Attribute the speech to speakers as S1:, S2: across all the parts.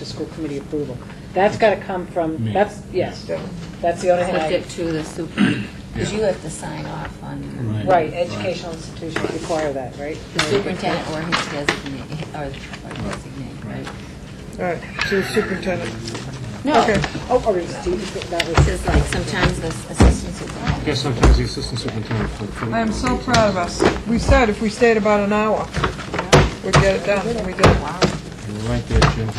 S1: to school committee approval. That's got to come from,
S2: Me.
S1: that's, yes,
S3: Yeah.
S1: that's the only thing I,
S4: Subject to the super, because you have to sign off on,
S2: Right.
S1: right, educational institutions require that, right?
S4: the superintendent or his designate, or or designate, right?
S3: All right, to superintendent.
S4: No,
S3: Okay.
S1: Oh, or it's, that was.
S4: this is like sometimes the assistant superintendent.
S2: Yeah, sometimes the assistant superintendent. for- for-
S3: I am so proud of us. We said if we stayed about an hour, we'd get it done, and we did.
S2: You're Right there, Jim.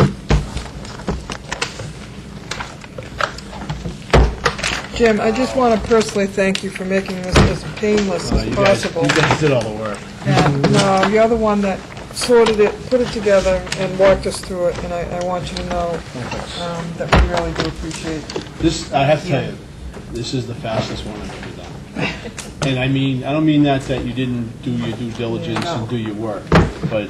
S3: Jim, I just want to personally thank you for making this as painless as possible.
S5: Uh, guys did all the work.
S3: And, no, you're the one that sorted it, put it together, and walked us through it, and I, I want you to know um, that we really do appreciate
S5: This, I have to tell you, this is the fastest one I've ever done. And I mean, I don't mean that, that you didn't do your due diligence and do your work, but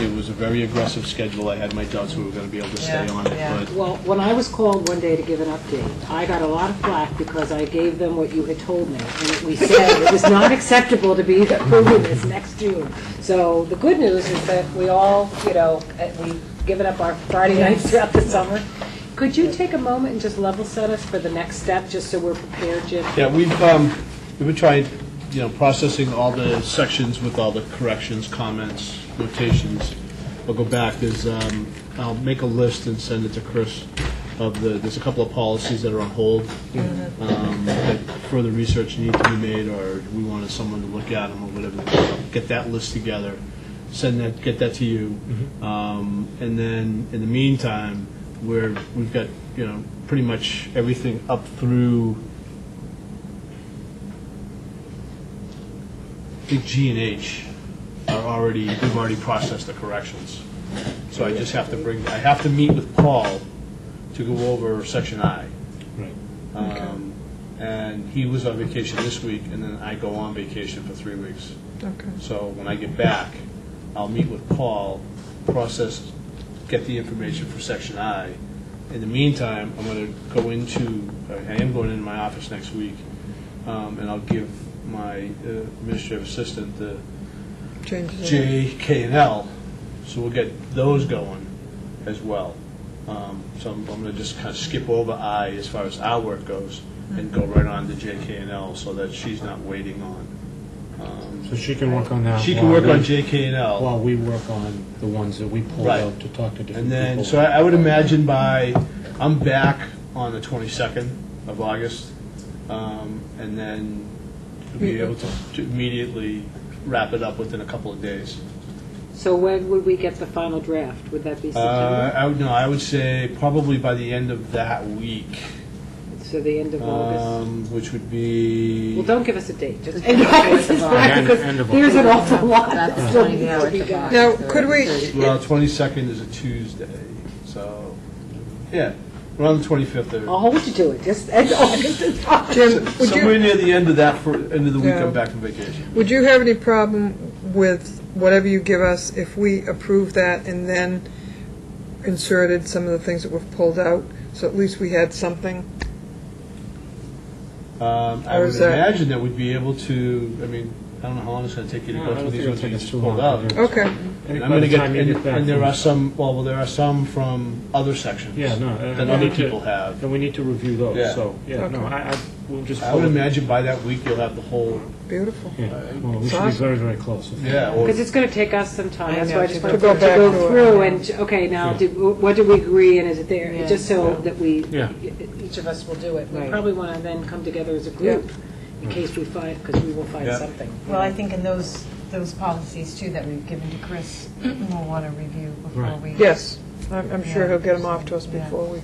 S5: it was a very aggressive schedule. I had my doubts we were gonna be able to stay
S3: Yeah,
S5: on
S3: yeah.
S5: it, but
S1: Well, when I was called one day to give an update, I got a lot of flack because I gave them what you had told me. And we said it was not acceptable to be approving this next June. So the good news is that we all, you know, uh, we've given up our Friday nights throughout the summer. Could you take a moment and just level set us for the next step, just so we're prepared, Jim?
S5: Yeah, we've, um, we've tried, you know, processing all the sections with all the corrections, comments, notations. I'll go back, there's, um, I'll make a list and send it to Chris of the, there's a couple of policies that are on hold. um, That further research needs to be made, or we wanted someone to look at them or whatever. Get that list together, send that, get that to you. Um, And then, in the meantime, we're, we've got, you know, pretty much everything up through I think G and H are already, we've already processed the corrections. So I just have to bring, I have to meet with Paul to go over section I.
S2: Right.
S5: Um, And he was on vacation this week, and then I go on vacation for three weeks.
S3: it. Okay.
S5: So when I get back, I'll meet with Paul, process, get the information for section I. In the meantime, I'm going to go into, I am going into my office next week, um, and I'll give my uh, administrative assistant the
S3: Changes. in-
S5: J, K, and L, so we'll get those going as well. Um, So I'm going to just kind of skip over I as far as our work goes, and go right on to J, K, and L, so that she's not waiting on.
S2: So she can work on that.
S5: She can
S2: while
S5: work on
S2: we-
S5: J, K, and L.
S2: While we work on the ones that we pulled
S5: Right.
S2: out to talk to different people.
S5: And then, so I I would imagine by, I'm back on the 22nd of August, um, and then be able to to immediately wrap it up within a couple of days.
S1: So when would we get the final draft? Would that be
S5: Uh,
S1: September?
S5: I would, no, I would say probably by the end of that week,
S1: So the end of August?
S5: um, which would
S1: Well,
S5: be,
S1: don't give us a date, just end of August is fine,
S2: End- end
S1: because
S2: of
S1: there's an awful lot
S4: That's
S1: that still
S4: 20
S1: needs to
S4: hours
S1: be
S4: of
S1: done.
S4: August.
S3: Now, could we,
S5: well, 22nd is a Tuesday, so, yeah, around the 25th or.
S1: I'll hold you to it, just end of August is fine.
S3: Jim, would you?
S5: Somewhere near the end of that, for, end of the week,
S3: Yeah.
S5: I'm back from vacation.
S3: Would you have any problem with whatever you give us if we approve that and then inserted some of the things that we've pulled out? So at least we had something.
S5: Um, I
S3: Or
S5: would
S3: is that-
S5: imagine that we'd be able to, I mean, I don't know how long it's going to take you to
S2: No,
S5: go
S2: I
S5: through
S2: don't
S5: these
S2: think it'll
S5: ones that
S2: take
S5: you
S2: us
S5: just
S2: too
S5: pulled
S2: long.
S5: out.
S3: Okay,
S2: I think
S5: And
S2: by
S5: I'm going to
S2: the
S5: get,
S2: time you
S5: and
S2: get back
S5: and there
S2: from-
S5: are some, well, well, there are some from other sections.
S2: Yeah, no. and
S5: That
S2: we
S5: other
S2: need to-
S5: people have.
S2: And we need to review
S5: Yeah.
S2: those, so, yeah, no,
S3: Okay.
S2: I, I, we'll just.
S5: I would
S2: pull-
S5: imagine by that week, you'll have the whole,
S3: beautiful.
S2: Yeah, well, we should be
S3: Awesome.
S2: very, very close. if-
S5: yeah, or,
S1: Because it's going to take us some time, that's why I just
S3: To
S1: wanted to
S3: go back to
S1: go
S3: it.
S1: through and, okay, now, did- what did we agree and is it there?
S4: Yeah.
S1: Just so that we,
S2: Yeah.
S1: each of us will do it. We
S4: Right.
S1: probably want to then come together as a group in case we find, because we will find
S5: Yeah.
S1: something.
S6: Well, I think in those, those policies too that we've given to Chris, we'll want to review before
S2: Right.
S6: we.
S3: Yes, I'm, I'm sure he'll get them off to us before we,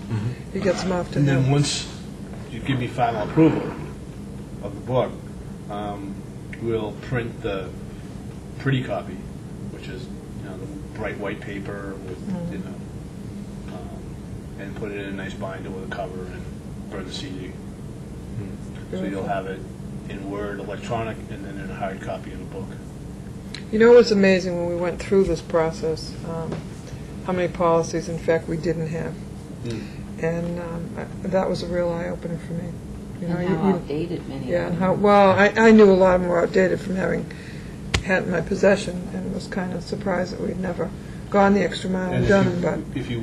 S3: he gets them off to
S5: Mm-hmm. and then
S3: him.
S5: once you give me final approval of the book, um, we'll print the pretty copy, which is, you know, the bright white paper with, you know, um, and put it in a nice binder with a cover and burn the CD. So you'll have it in Word, electronic, and then in a hard copy in a book.
S3: You know, it was amazing when we went through this process, um, how many policies, in fact, we didn't have.
S5: Mm.
S3: And um, I- that was a real eye-opener for me. You know,
S4: And
S3: you-
S4: how
S3: you-
S4: outdated many
S3: Yeah,
S4: of
S3: and
S4: them.
S3: how, well, I, I knew a lot more outdated from having had it in my possession, and was kind of surprised that we'd never gone the extra mile
S5: And
S3: and
S5: if
S3: done
S5: you-
S3: it, but.
S5: If you